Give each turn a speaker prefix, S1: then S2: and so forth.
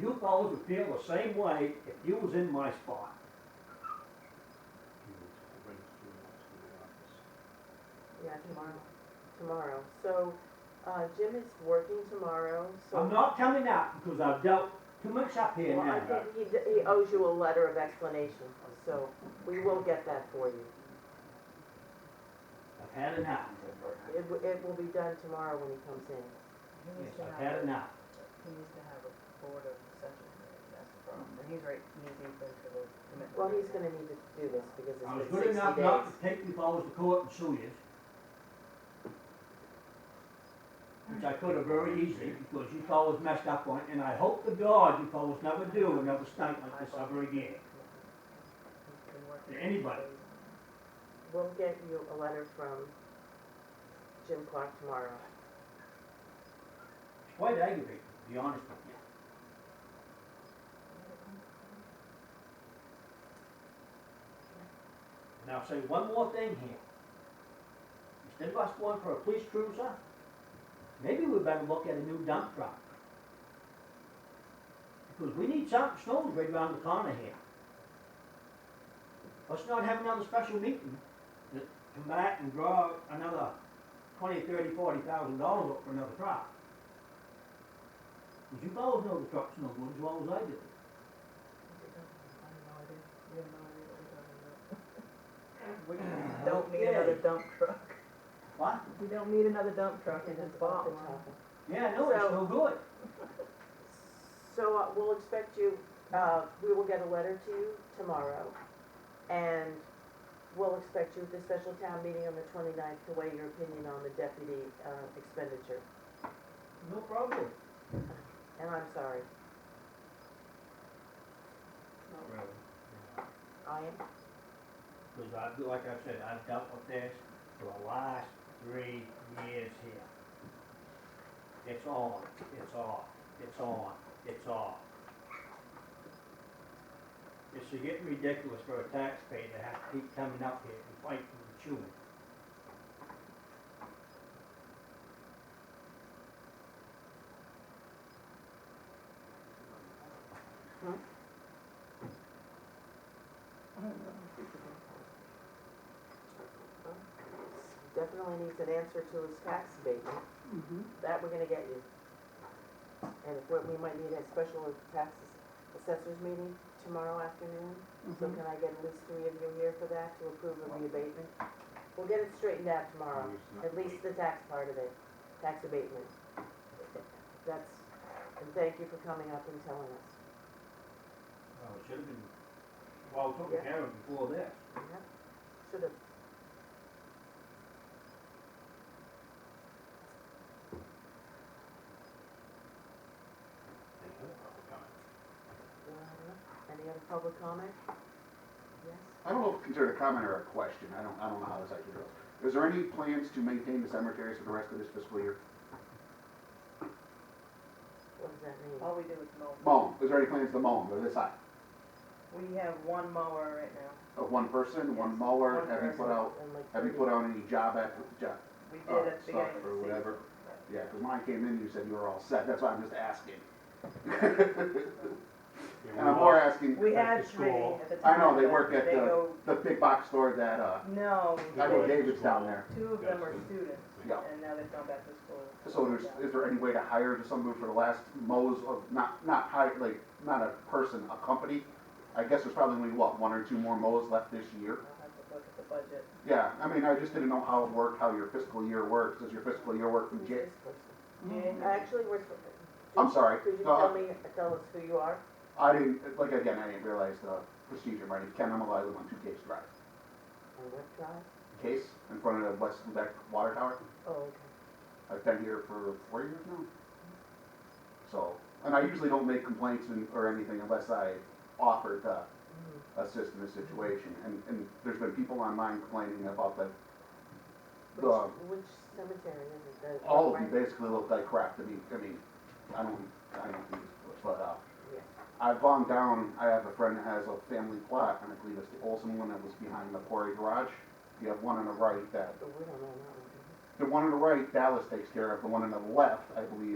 S1: you fellas would feel the same way if you was in my spot.
S2: Yeah, tomorrow, tomorrow. So, uh, Jim is working tomorrow, so.
S1: I'm not coming out because I've dealt too much up here
S2: Well, I
S1: now.
S2: think he, d- he owes you a letter of explanation, so we will get that for you.
S1: I've had enough.
S2: It, w- it will be done tomorrow when he comes in.
S1: Yes,
S3: He needs to
S1: I've
S3: have,
S1: had enough.
S3: he needs to have a board of such, that's the problem, and he's right, knee deep into the commitment.
S2: Well, he's gonna need to do this because
S1: I was
S2: it's
S1: good
S2: been sixty
S1: enough
S2: days.
S1: not to take you fellas to court and sue you. Which I could have very easily because you fellas messed up on it and I hope to God you fellas never do another stunt like this ever again.
S3: He's been working.
S1: To anybody.
S2: We'll get you a letter from Jim Clark tomorrow.
S1: It's quite aggravating, to be honest with you. And I'll say one more thing here. Instead of us going for a police cruiser, maybe we better look at a new dump truck. Because we need something, snow's right around the corner here. Let's not have another special meeting to come back and draw another twenty, thirty, forty thousand dollars up for another truck. Because you fellas know the truck's no good as well as I do.
S3: I have no idea, you have no idea what we're
S2: We
S3: talking about. Don't need another dump truck.
S1: What?
S3: We don't need another dump truck in this
S2: off the
S3: bottom line.
S2: topic.
S1: Yeah, no, it's no good.
S2: So uh, we'll expect you, uh, we will get a letter to you tomorrow, and we'll expect you at the special town meeting on the 29th to weigh your opinion on the deputy uh, expenditure.
S1: No problem.
S2: And I'm sorry, I am,
S1: Because I, like I said, I've dealt with this for the last three years here. It's on, it's off, it's on, it's off. It's getting ridiculous for a taxpayer to have to keep coming up here and fighting and chewing.
S2: definitely needs an answer to his tax abatement. That we're gonna get you. And if, we- we might need a special tax assessors meeting tomorrow afternoon. So can I get at least three of you here for that to approve of the abatement? We'll get it straightened out tomorrow, Uh, at least the tax part of it, tax abatement. That's, and thank you for coming up and telling us.
S1: Well, it should have been, well, taken
S2: Yeah.
S1: care of before this.
S2: Should have. uh, Any other public comment? Yes?
S4: I don't know if it's considered a comment or a question, I don't, I don't know how this actually goes. Is there any plans to maintain the cemeteries for the rest of this fiscal year?
S2: What does that mean?
S4: Oh,
S3: All we do is mow.
S4: Mow, is there any plans to mow them, or this side?
S3: We have one mower right now.
S4: Of one person, one
S3: Yes,
S4: mower,
S3: one
S4: have you put
S3: person.
S4: out,
S2: And like
S4: have you
S2: thirty-
S4: put out any job app, job
S3: We
S4: uh,
S3: did at the
S4: stuff
S3: beginning of the
S4: or
S3: season.
S4: whatever?
S3: but-
S4: Yeah, because when I came in, you said you were all set, that's why I'm just asking.
S2: Uh,
S4: And I'm more asking,
S3: We
S1: Back
S3: had
S1: to
S3: three
S1: school.
S3: at the time.
S4: I know, they
S3: but
S4: work at
S3: they go-
S4: the big box store that, uh,
S3: No,
S4: I
S3: they-
S4: know David's down there.
S3: two of them are students,
S4: Yeah.
S3: and now they've gone back to school.
S4: So there's, is there any way to hire just someone for the last mows of, not, not hire, like, not a person, a company? I guess there's probably only, what, one or two more mows left this year?
S3: I'll have to look at the budget.
S4: Yeah, I mean, I just didn't know how it worked, how your fiscal year works. Does your fiscal year work from
S2: Who's
S4: Jan?
S2: this person?
S3: Yeah.
S2: Actually, we're.
S4: I'm sorry,
S2: Could you
S4: no,
S2: tell me, tell us who you are?
S4: I didn't, like, again, I didn't realize the procedure, right? Ken Emily, I live on Two Case Drive.
S2: And what tribe?
S4: Case, in front of the West Lubeck Water Tower.
S2: Oh, okay.
S4: I've been here for four years now. So, and I usually don't make complaints and- or anything unless I offer to
S2: Mm-hmm.
S4: assist in the situation. And, and there's been people online complaining about that
S2: Which, which cemetery is it? The-
S4: all of
S2: right-
S4: them basically look like crap to me. I mean, I don't, I don't use it, but, uh,
S2: Yeah.
S4: I've gone down, I have a friend that has a family plot, and I believe it's the Olson one that was behind the quarry garage. You have one on the right that,
S2: But we Oh, don't know that one. do we?
S4: the one on the right Dallas takes care of, the one on the left, I believe,